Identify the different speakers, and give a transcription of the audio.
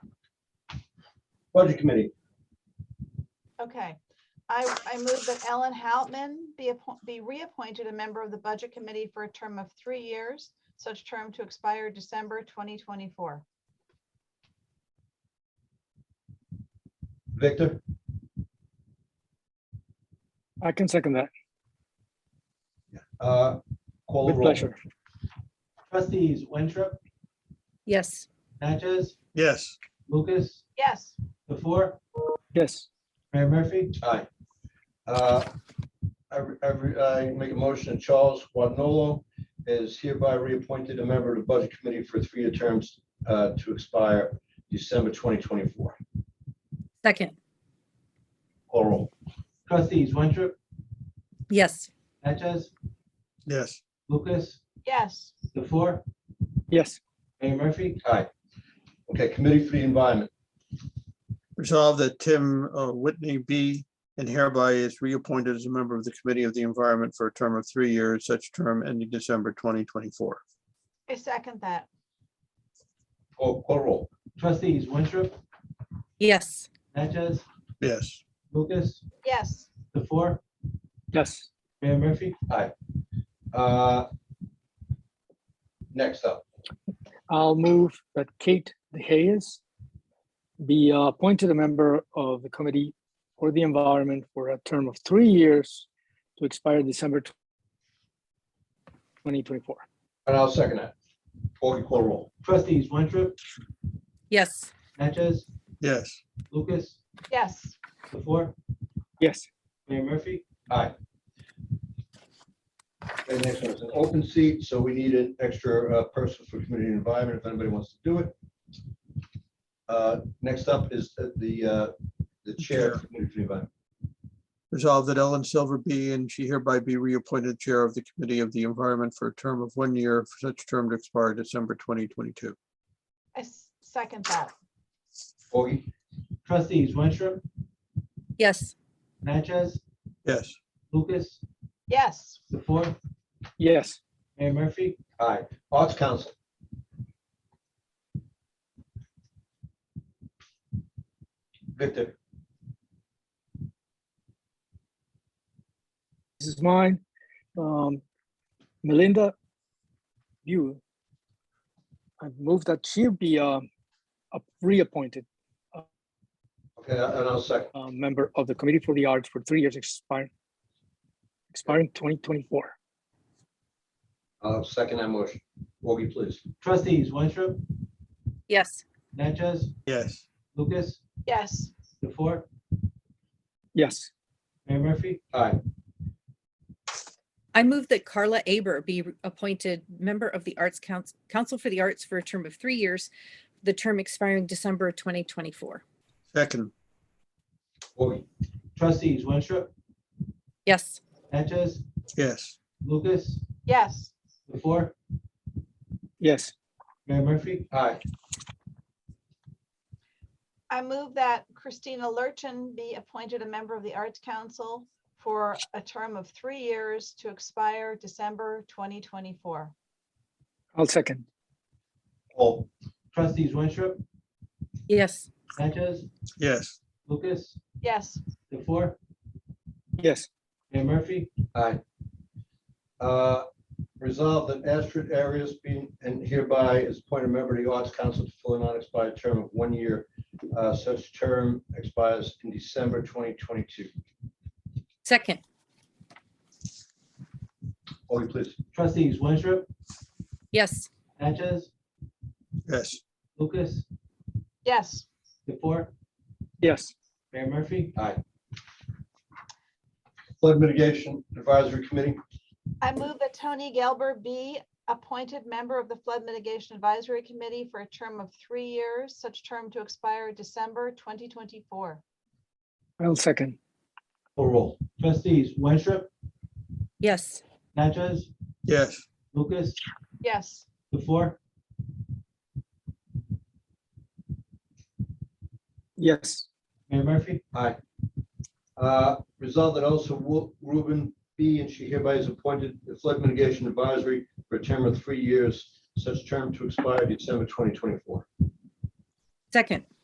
Speaker 1: Budget Committee,
Speaker 2: Okay, I, I move that Ellen Houtman be, appo- be reappointed a member of the Budget Committee for a term of three years, such term to expire December 2024.
Speaker 1: Victor,
Speaker 3: I can second that
Speaker 1: uh, call the
Speaker 3: with
Speaker 1: roll.
Speaker 3: pleasure.
Speaker 4: Trustees Winthrop,
Speaker 5: yes,
Speaker 4: Natchez,
Speaker 6: yes,
Speaker 4: Lucas,
Speaker 2: Yes,
Speaker 4: the four,
Speaker 3: Yes,
Speaker 4: Mayor Murphy,
Speaker 1: Aye. Uh, I, I, I make a motion, that Charles Guanolo is hereby reappointed a member of the Budget Committee for three-year terms uh, to expire December 2024.
Speaker 5: second,
Speaker 1: Call roll.
Speaker 4: trustees Winthrop,
Speaker 5: yes,
Speaker 4: Natchez,
Speaker 6: yes,
Speaker 4: Lucas,
Speaker 2: yes,
Speaker 4: the four,
Speaker 3: yes,
Speaker 4: Mayor Murphy,
Speaker 1: Aye. Okay, Committee for the Environment,
Speaker 6: resolve that Tim uh, Whitney be and hereby is reappointed as a member of the Committee of the Environment for a term of three years, such term ending December twenty twenty-four.
Speaker 2: I second that.
Speaker 1: call, call roll.
Speaker 4: trustees Winthrop,
Speaker 5: yes,
Speaker 4: Natchez,
Speaker 6: Yes,
Speaker 4: Lucas,
Speaker 2: Yes,
Speaker 4: the four,
Speaker 3: yes,
Speaker 4: Mayor Murphy,
Speaker 1: Uh, Next up,
Speaker 3: I'll move that Kate DeHayes be uh, appointed a member of the Committee for the Environment for a term of three years to expire December tw- 2024.
Speaker 1: and I'll second that. Augie, call roll.
Speaker 4: trustees Winthrop,
Speaker 5: yes,
Speaker 4: Natchez,
Speaker 6: yes,
Speaker 4: Lucas,
Speaker 2: yes,
Speaker 4: the four,
Speaker 3: Yes,
Speaker 4: Mayor Murphy,
Speaker 1: Aye. Okay, next one is an open seat, so we need an extra uh, person for community and environment if anybody wants to do it. Uh, Next up is the- the, uh, the chair of community and environment.
Speaker 6: resolve that Ellen Silver be and she hereby be reappointed Chair of the Committee of the Environment for a term of one year, for such term to expire December twenty twenty-two.
Speaker 2: I s- second that.
Speaker 1: Augie,
Speaker 4: trustees Winthrop,
Speaker 5: yes,
Speaker 4: Natchez,
Speaker 6: Yes,
Speaker 4: Lucas,
Speaker 2: Yes,
Speaker 4: the four,
Speaker 3: yes,
Speaker 4: Mayor Murphy,
Speaker 1: aye. Arts Council, Victor,
Speaker 3: this is mine. Um, Melinda, you, I move that she be um, a- reappointed
Speaker 1: okay, and I'll second.
Speaker 3: uh, member of the Committee for the Arts for three years expiring expiring 2024.
Speaker 1: I'll second that motion. Augie, please.
Speaker 4: trustees Winthrop,
Speaker 5: yes,
Speaker 4: Natchez,
Speaker 6: yes,
Speaker 4: Lucas,
Speaker 2: yes,
Speaker 4: the four,
Speaker 3: Yes,
Speaker 4: Mayor Murphy,
Speaker 1: Aye.
Speaker 5: I move that Carla Aber be appointed member of the Arts Council, Council for the Arts for a term of three years, the term expiring December 2024.
Speaker 6: second,
Speaker 1: Augie,
Speaker 4: trustees Winthrop,
Speaker 5: Yes,
Speaker 4: Natchez,
Speaker 6: yes,
Speaker 4: Lucas,
Speaker 2: yes,
Speaker 4: the four,
Speaker 3: yes,
Speaker 4: Mayor Murphy,
Speaker 1: aye.
Speaker 2: I move that Christina Lurchin be appointed a member of the Arts Council for a term of three years to expire December 2024.
Speaker 3: I'll second.
Speaker 1: Paul,
Speaker 4: trustees Winthrop,
Speaker 5: yes,
Speaker 4: Natchez,
Speaker 6: yes,
Speaker 4: Lucas,
Speaker 2: Yes,
Speaker 4: the four,
Speaker 3: Yes,
Speaker 4: Mayor Murphy,
Speaker 1: Aye. Uh, Resolved that Astrid Arias being and hereby is appointed member of the Arts Council to fill a non-expired term of one year. Uh, Such term expires in December 2022.
Speaker 5: second,
Speaker 1: Augie, please.
Speaker 4: trustees Winthrop,
Speaker 5: yes,
Speaker 4: Natchez,
Speaker 6: yes,
Speaker 4: Lucas,
Speaker 2: yes,
Speaker 4: the four,
Speaker 3: yes,
Speaker 4: Mayor Murphy,
Speaker 1: Flood Mitigation Advisory Committee,
Speaker 2: I move that Tony Gelber be appointed member of the Flood Mitigation Advisory Committee for a term of three years, such term to expire December 2024.
Speaker 3: I'll second.
Speaker 1: full roll.
Speaker 4: trustees Winthrop,
Speaker 5: yes,
Speaker 4: Natchez,
Speaker 6: yes,
Speaker 4: Lucas,
Speaker 2: Yes,
Speaker 4: the four,
Speaker 3: Yes,
Speaker 4: Mayor Murphy,
Speaker 1: Aye. Uh, Resolved that also Ru- Ruben B. and she hereby is appointed the Flood Mitigation Advisory for a term of three years. Such term to expire December 2024.
Speaker 5: second,